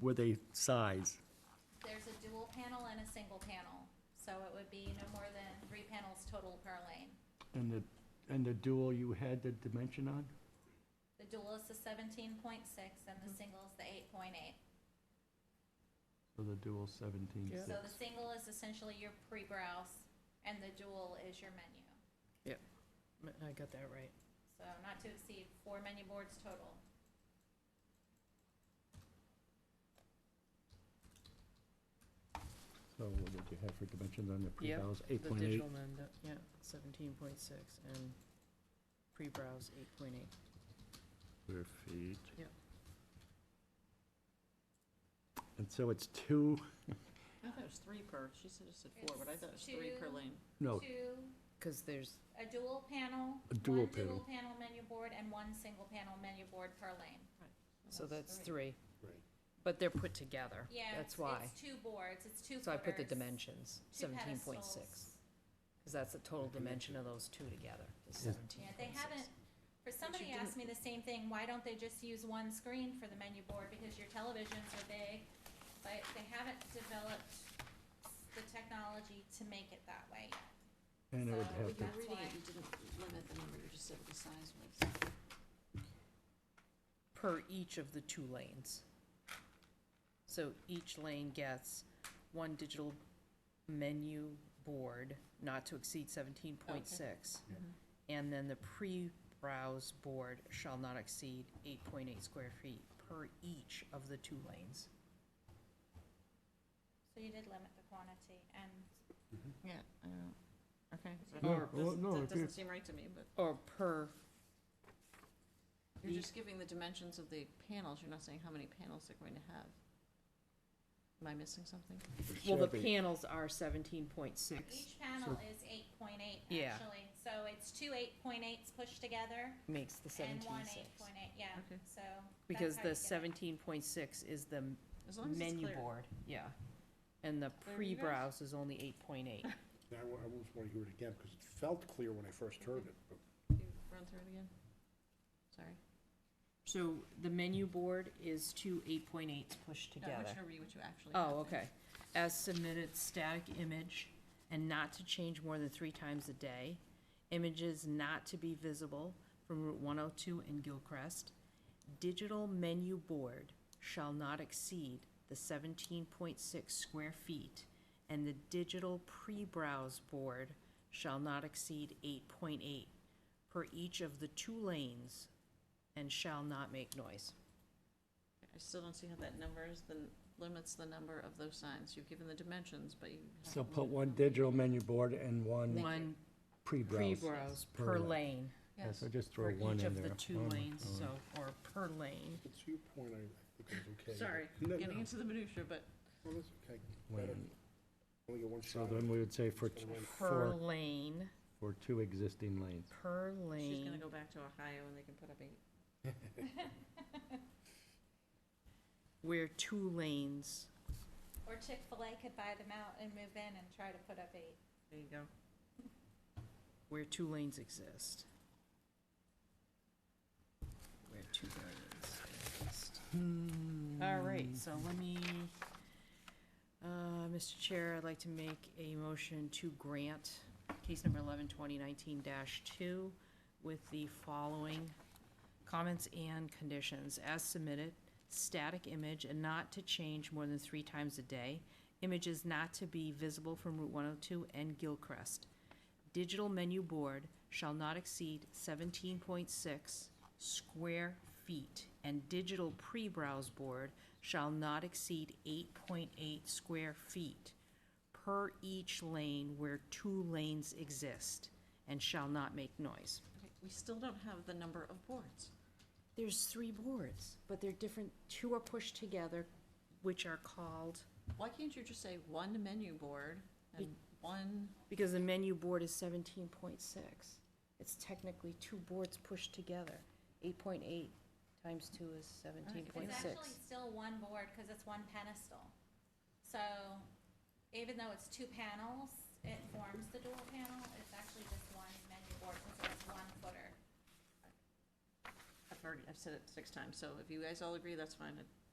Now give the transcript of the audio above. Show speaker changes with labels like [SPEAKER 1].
[SPEAKER 1] were they size?
[SPEAKER 2] There's a dual panel and a single panel, so it would be no more than three panels total per lane.
[SPEAKER 1] And the, and the dual you had the dimension on?
[SPEAKER 2] The dual is the seventeen point six and the
[SPEAKER 1] Mm-hmm.
[SPEAKER 2] single is the eight point eight.
[SPEAKER 1] So the dual seventeen six.
[SPEAKER 3] Yeah.
[SPEAKER 2] So the single is essentially your pre-browse and the dual is your menu.
[SPEAKER 3] M- I got that right.
[SPEAKER 2] So not to exceed four menu boards total.
[SPEAKER 1] So what did you have for dimensions on the
[SPEAKER 3] Yeah,
[SPEAKER 1] pre-bows? Eight
[SPEAKER 3] The
[SPEAKER 1] point eight?
[SPEAKER 3] digital mend, yeah, seventeen point six, and pre-browse eight point eight.
[SPEAKER 4] Square feet.
[SPEAKER 1] And so it's two,
[SPEAKER 5] I thought it was three per, she said it said four, but I thought it was
[SPEAKER 2] It's
[SPEAKER 5] three per
[SPEAKER 2] two.
[SPEAKER 5] lane. Oh,
[SPEAKER 1] no,
[SPEAKER 2] Two,
[SPEAKER 3] Cause there's,
[SPEAKER 2] a dual panel,
[SPEAKER 1] A dual
[SPEAKER 2] one dual panel menu board and one single panel menu board per lane.
[SPEAKER 3] so that's three. But they're put together.
[SPEAKER 2] Yeah,
[SPEAKER 3] That's
[SPEAKER 2] it's,
[SPEAKER 3] why.
[SPEAKER 2] it's two boards, it's two footers.
[SPEAKER 3] So I put the dimensions,
[SPEAKER 2] two
[SPEAKER 3] seventeen point six,
[SPEAKER 2] pedestals.
[SPEAKER 3] cause that's the total dimension of those two together, is
[SPEAKER 1] Yeah.
[SPEAKER 3] seventeen
[SPEAKER 2] Yeah,
[SPEAKER 3] point six.
[SPEAKER 2] they haven't, for somebody
[SPEAKER 5] didn't-
[SPEAKER 2] asked me the same thing, why don't they just use one screen for the menu board, because your televisions are big, but they haven't developed the technology to make it that way yet.
[SPEAKER 1] and it would
[SPEAKER 2] So
[SPEAKER 1] have
[SPEAKER 2] we
[SPEAKER 1] to,
[SPEAKER 2] got- That's
[SPEAKER 5] Reading
[SPEAKER 2] why.
[SPEAKER 5] it, you didn't limit the number, you just said what the size was.
[SPEAKER 3] per each of the two lanes. So each lane gets one digital menu board, not to exceed seventeen point six.
[SPEAKER 2] Mm-hmm.
[SPEAKER 3] And then the pre-browse board shall not exceed eight point eight square feet per each of the two lanes.
[SPEAKER 2] So you did limit the quantity, and
[SPEAKER 5] Yeah, I don't, okay. so
[SPEAKER 1] No,
[SPEAKER 5] that
[SPEAKER 1] well,
[SPEAKER 5] doesn't-
[SPEAKER 1] no, if
[SPEAKER 5] That
[SPEAKER 1] you-
[SPEAKER 5] doesn't seem right to me, but
[SPEAKER 3] Or per,
[SPEAKER 5] you're just giving the dimensions of the panels, you're not saying how many panels they're going to have. Am I missing something?
[SPEAKER 3] well, the
[SPEAKER 1] Should be.
[SPEAKER 3] panels are seventeen point six,
[SPEAKER 2] each panel is eight point eight,
[SPEAKER 3] Yeah.
[SPEAKER 2] actually, so it's two eight point eights pushed together,
[SPEAKER 3] makes the
[SPEAKER 2] and
[SPEAKER 3] seventeen
[SPEAKER 2] one
[SPEAKER 3] six.
[SPEAKER 2] eight point eight, yeah,
[SPEAKER 5] Okay.
[SPEAKER 2] so. that's
[SPEAKER 3] Because
[SPEAKER 2] how
[SPEAKER 3] the
[SPEAKER 2] you get it.
[SPEAKER 3] seventeen point six is the m-
[SPEAKER 5] As long as it's
[SPEAKER 3] menu
[SPEAKER 5] clear.
[SPEAKER 3] board, yeah. And the
[SPEAKER 5] Clear to you guys?
[SPEAKER 3] pre-browse is only eight point eight.
[SPEAKER 6] Now, I almost want to hear it again, because it felt clear when I first heard it, but
[SPEAKER 5] Can you Run through it again? Sorry.
[SPEAKER 3] So the menu board is two eight point eights pushed
[SPEAKER 5] No, I'm
[SPEAKER 3] together.
[SPEAKER 5] sure read what you actually have.
[SPEAKER 3] Oh,
[SPEAKER 5] there.
[SPEAKER 3] okay. As submitted static image and not to change more than three times a day. Images not to be visible from Route one oh two and Gilcrest. Digital menu board shall not exceed the seventeen point six square feet. And the digital pre-browse board shall not exceed eight point eight per each of the two lanes and shall not make noise.
[SPEAKER 5] I still don't see how that numbers, the, limits the number of those signs. You've given the dimensions, but you.
[SPEAKER 1] so put one digital menu board and one
[SPEAKER 3] One
[SPEAKER 1] pre-browse.
[SPEAKER 3] pre-browse
[SPEAKER 1] per
[SPEAKER 3] per
[SPEAKER 1] lane.
[SPEAKER 3] lane.
[SPEAKER 1] Yeah,
[SPEAKER 5] Yes.
[SPEAKER 1] so just
[SPEAKER 3] for
[SPEAKER 1] throw one
[SPEAKER 3] each
[SPEAKER 1] in
[SPEAKER 3] of the
[SPEAKER 1] there. Oh
[SPEAKER 3] two
[SPEAKER 1] One,
[SPEAKER 3] lanes,
[SPEAKER 1] one.
[SPEAKER 3] so, or per lane.
[SPEAKER 6] to your point, I I think it was okay.
[SPEAKER 5] Sorry,
[SPEAKER 6] No, no,
[SPEAKER 5] getting into the minutia, but
[SPEAKER 6] well, that's okay.
[SPEAKER 1] Wait.
[SPEAKER 6] Only get one
[SPEAKER 1] So
[SPEAKER 6] shot.
[SPEAKER 1] then we would say for, t-
[SPEAKER 3] Per
[SPEAKER 1] for,
[SPEAKER 3] lane,
[SPEAKER 1] for two existing lanes.
[SPEAKER 3] per
[SPEAKER 5] she's gonna
[SPEAKER 3] lane,
[SPEAKER 5] go back to Ohio and they can put up eight.
[SPEAKER 3] where two lanes,
[SPEAKER 2] Or Chick-fil-A could buy them out and move in and try to put up eight.
[SPEAKER 5] There you go.
[SPEAKER 3] where two lanes exist. Where two lanes exist. All right, so let me, uh, Mr. Chair, I'd like to make a motion to grant case number eleven twenty nineteen dash two with the following comments and conditions as submitted, static image and not to change more than three times a day, images not to be visible from Route one oh two and Gilcrest. Digital menu board shall not exceed seventeen point six square feet, and digital pre-browse board shall not exceed eight point eight square feet per each lane where two lanes exist, and shall not make noise.
[SPEAKER 5] Okay, We still don't have the number of boards.
[SPEAKER 3] There's three boards, but they're different, two are pushed together, which are called,
[SPEAKER 5] Why can't you just say one menu board and one,
[SPEAKER 3] because the menu board is seventeen point six. It's technically two boards pushed together. Eight point eight times two is seventeen point
[SPEAKER 2] It's actually
[SPEAKER 3] six.
[SPEAKER 2] still one board, because it's one pedestal. So even though it's two panels, it forms the dual panel, it's actually just one menu board, because it's one footer.
[SPEAKER 5] I've already, I've said it six times, so if you guys all agree, that's fine. I